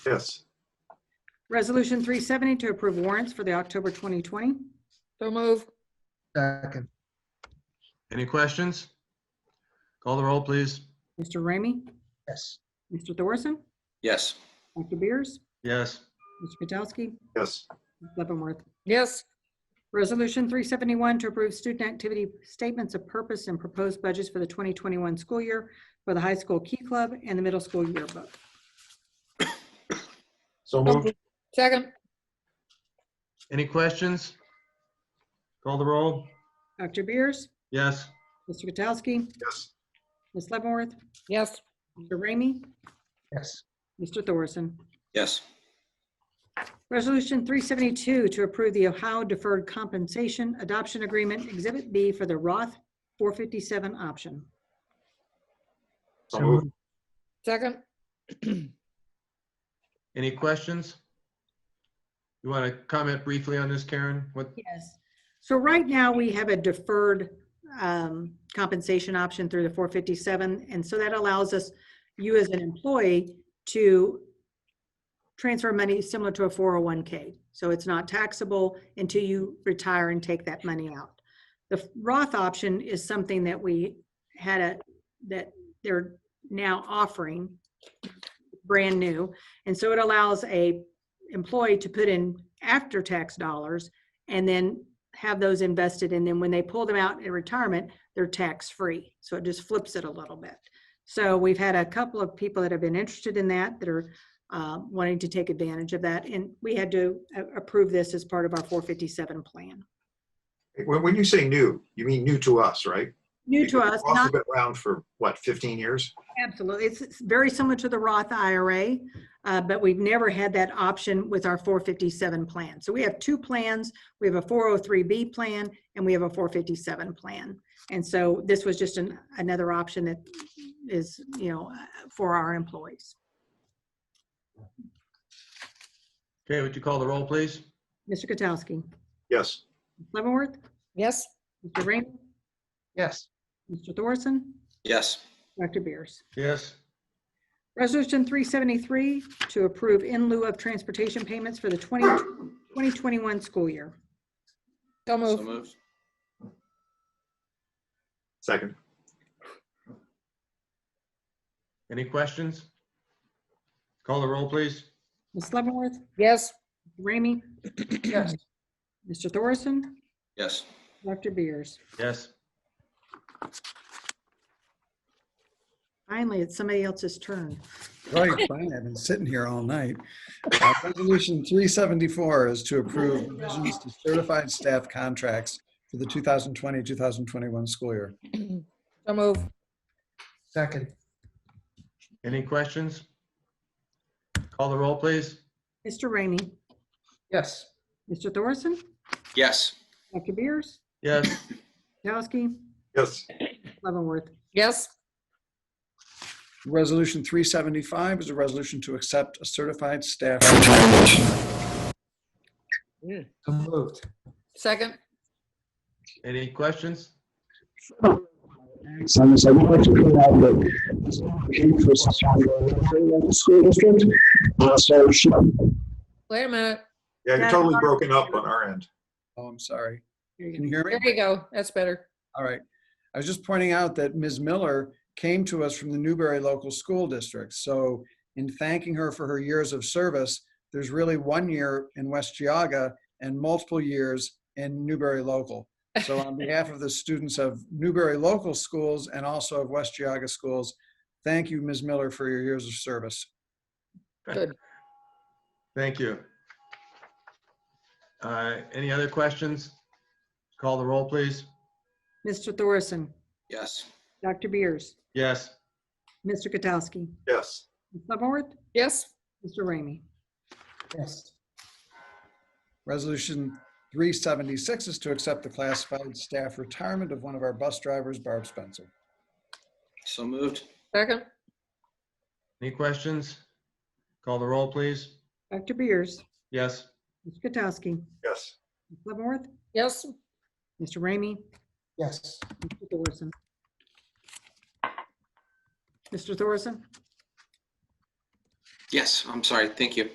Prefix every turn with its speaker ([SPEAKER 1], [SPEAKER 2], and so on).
[SPEAKER 1] Yes.
[SPEAKER 2] Resolution 370 to approve warrants for the October 2020.
[SPEAKER 3] So move.
[SPEAKER 4] second,
[SPEAKER 5] Any questions? Call the roll, please.
[SPEAKER 2] Mr. Ramey?
[SPEAKER 4] yes,
[SPEAKER 2] Mr. Thorson?
[SPEAKER 6] yes,
[SPEAKER 2] Dr. Beers?
[SPEAKER 5] Yes.
[SPEAKER 2] Mr. Katsowski?
[SPEAKER 1] Yes.
[SPEAKER 2] Ms. Leavenworth?
[SPEAKER 3] Yes,
[SPEAKER 2] Resolution 371 to approve student activity statements of purpose and proposed budgets for the 2021 school year for the high school key club and the middle school yearbook.
[SPEAKER 1] So moved.
[SPEAKER 3] second.
[SPEAKER 5] Any questions? Call the roll.
[SPEAKER 2] Dr. Beers?
[SPEAKER 5] Yes.
[SPEAKER 2] Mr. Katsowski?
[SPEAKER 1] Yes.
[SPEAKER 2] Ms. Leavenworth?
[SPEAKER 3] Yes,
[SPEAKER 2] Mr. Ramey?
[SPEAKER 4] yes,
[SPEAKER 2] Mr. Thorson?
[SPEAKER 6] yes,
[SPEAKER 2] Resolution 372 to approve the Ohio Deferred Compensation Adoption Agreement Exhibit B for the Roth 457 option.
[SPEAKER 1] So moved.
[SPEAKER 3] second.
[SPEAKER 5] Any questions? You want to comment briefly on this, Karen? What,
[SPEAKER 2] Yes. So right now, we have a deferred um, compensation option through the 457. And so that allows us, you as an employee, to transfer money similar to a 401K. So it's not taxable until you retire and take that money out. The Roth option is something that we had a, that they're now offering, brand new. And so it allows a employee to put in after-tax dollars and then have those invested. And then when they pull them out in retirement, they're tax-free. So it just flips it a little bit. So we've had a couple of people that have been interested in that, that are uh, wanting to take advantage of that. And we had to a- approve this as part of our 457 plan.
[SPEAKER 1] When, when you say new, you mean new to us, right?
[SPEAKER 2] New to us,
[SPEAKER 1] Roth has
[SPEAKER 2] not
[SPEAKER 1] been around for, what, 15 years?
[SPEAKER 2] absolutely. It's it's very similar to the Roth IRA, uh, but we've never had that option with our 457 plan. So we have two plans. We have a 403B plan and we have a 457 plan. And so this was just an, another option that is, you know, uh, for our employees.
[SPEAKER 5] okay, would you call the roll, please?
[SPEAKER 2] Mr. Katsowski,
[SPEAKER 1] Yes.
[SPEAKER 2] Leavenworth,
[SPEAKER 3] Yes,
[SPEAKER 2] Mr. Raymond,
[SPEAKER 4] yes,
[SPEAKER 2] Mr. Thorson,
[SPEAKER 6] yes,
[SPEAKER 2] Dr. Beers.
[SPEAKER 5] Yes.
[SPEAKER 2] Resolution 373 to approve in lieu of transportation payments for the 20 2021 school year.
[SPEAKER 3] so
[SPEAKER 6] so
[SPEAKER 3] move.
[SPEAKER 6] moved,
[SPEAKER 1] Second.
[SPEAKER 5] Any questions? Call the roll, please.
[SPEAKER 2] Ms. Leavenworth,
[SPEAKER 3] Yes,
[SPEAKER 2] Ramey,
[SPEAKER 4] yes,
[SPEAKER 2] Mr. Thorson,
[SPEAKER 6] yes,
[SPEAKER 2] Dr. Beers.
[SPEAKER 5] Yes.
[SPEAKER 2] Finally, it's somebody else's turn.
[SPEAKER 7] Right, fine. I've been sitting here all night. Uh, Resolution 374 is to approve revisions to certified staff contracts for the 2020-2021 school year.
[SPEAKER 3] so move.
[SPEAKER 4] second,
[SPEAKER 5] Any questions? Call the roll, please.
[SPEAKER 2] Mr. Ramey,
[SPEAKER 4] yes,
[SPEAKER 2] Mr. Thorson,
[SPEAKER 6] yes,
[SPEAKER 2] Dr. Beers,
[SPEAKER 5] Yes.
[SPEAKER 2] Katsowski,
[SPEAKER 1] Yes.
[SPEAKER 2] Leavenworth.
[SPEAKER 3] Yes,
[SPEAKER 7] Resolution 375 is a resolution to accept a certified staff. Oh,
[SPEAKER 4] so moved,
[SPEAKER 3] second.
[SPEAKER 5] Any questions?
[SPEAKER 8] Thanks, and so I would like to point out that this application for Sassafras Elementary Local School District, uh, so she,
[SPEAKER 3] Wait a minute.
[SPEAKER 1] Yeah, you're
[SPEAKER 2] Yeah.
[SPEAKER 1] totally broken up on our end.
[SPEAKER 7] Oh, I'm sorry.
[SPEAKER 2] There you
[SPEAKER 7] Can you hear me?
[SPEAKER 3] There you go. That's better.
[SPEAKER 7] All right. I was just pointing out that Ms. Miller came to us from the Newberry Local School District. So in thanking her for her years of service, there's really one year in West Geauga and multiple years in Newberry Local. So on behalf of the students of Newberry Local Schools and also of West Geauga Schools, thank you, Ms. Miller, for your years of service.
[SPEAKER 3] Good.
[SPEAKER 5] Thank you. Uh, Any other questions? Call the roll, please.
[SPEAKER 2] Mr. Thorson,
[SPEAKER 6] yes,
[SPEAKER 2] Dr. Beers,
[SPEAKER 5] Yes.
[SPEAKER 2] Mr. Katsowski,
[SPEAKER 1] Yes.
[SPEAKER 2] Ms. Leavenworth,
[SPEAKER 3] Yes,
[SPEAKER 2] Mr. Ramey.
[SPEAKER 4] yes,
[SPEAKER 7] Resolution 376 is to accept the classified staff retirement of one of our bus drivers, Barb Spencer.
[SPEAKER 6] so moved,
[SPEAKER 3] second.
[SPEAKER 5] Any questions? Call the roll, please.
[SPEAKER 2] Dr. Beers,
[SPEAKER 5] Yes.
[SPEAKER 2] Mr. Katsowski,
[SPEAKER 1] Yes.
[SPEAKER 2] Ms. Leavenworth,
[SPEAKER 3] Yes,
[SPEAKER 2] Mr. Ramey,
[SPEAKER 4] yes,
[SPEAKER 2] Mr. Thorson. Mr. Thorson?
[SPEAKER 6] Yes, I'm sorry. Thank you.